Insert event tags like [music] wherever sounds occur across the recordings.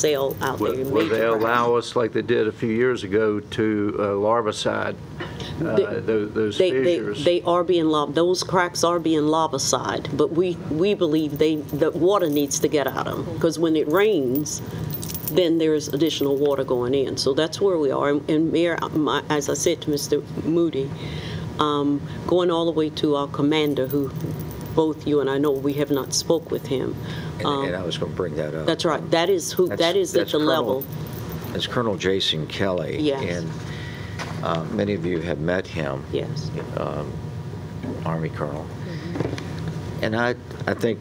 sale out there. Will will they major brands. allow us, like they did a few years ago, to uh, larvicide uh, They- tho- those They, they, fissures? they are being lob, those cracks are being lobicide, but we, we believe they, that water needs to get out of them. Because when it rains, then there's additional water going in. So that's where we are. And- And Mayor, uh, my, as I said to Mr. Moody, um, going all the way to our commander, who both you and I know, we have not spoke with him. Um, And I was going to bring that up. That's right. That is who, That's- that is at that's the level. Colonel- That's Colonel Jason Kelly. Yes. And uh, many of you have met him, Yes. Army Colonel. Mm-hmm. And I, I think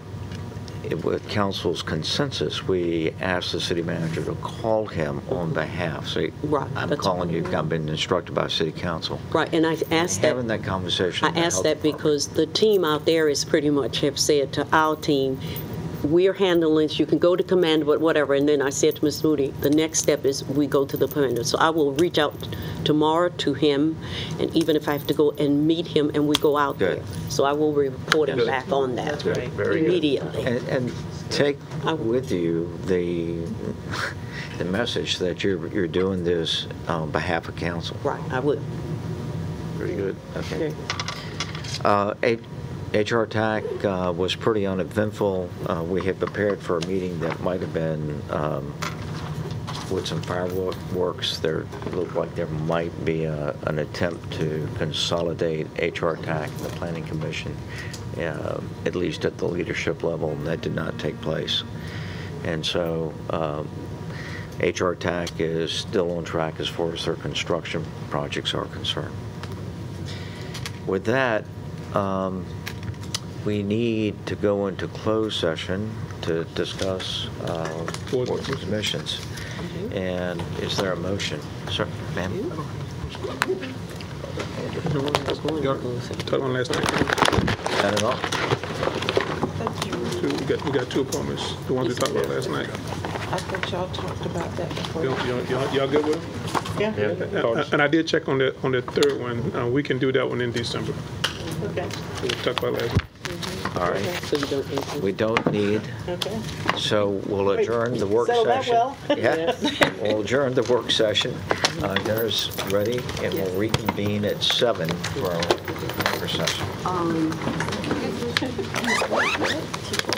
it- with council's consensus, we asked the city manager to call him on behalf. Say, Right, I'm that's- calling you, I've been instructed by city council. Right. And I asked that. Having that conversation. I with the ask health that department. because the team out there is pretty much have said to our team, we're handling this, you can go to command, but whatever. And then I said to Ms. Moody, the next step is we go to the commander. So I will reach out tomorrow to him, and even if I have to go and meet him and we go out Good. there. So I will report him back on that great. Very good. immediately. And, and take I- with you the, [laughs] the message that you're, you're doing this on behalf of council. Right, I would. Very good. Okay. Uh, H- HR TAC uh, was pretty uneventful. Uh, We had prepared for a meeting that might have been um, with some fireworks. There looked like there might be a- an attempt to consolidate HR TAC and the Planning Commission, uh, at least at the leadership level, and that did not take place. And so um, HR TAC is still on track as far as their construction projects are concerned. With that, um, we need to go into closed session to discuss uh, boards and commissions. And is there a motion? Sir, ma'am? Got got one last thing. Not at all? Two- We got, we got two appointments, the ones we talked about last night. I thought y'all talked about that before. Y'all, y'all- y'all- y'all good with them? Yeah. Uh, And I did check on the, on the third one. Uh, We can do that one in December. Okay, We talked about last night. All right. So you don't. We don't need, okay. so we'll adjourn the work session. Settle that well. Yeah, [laughs] we'll adjourn the work session. Uh, Dinner's ready, and we'll reconvene at seven for our work session.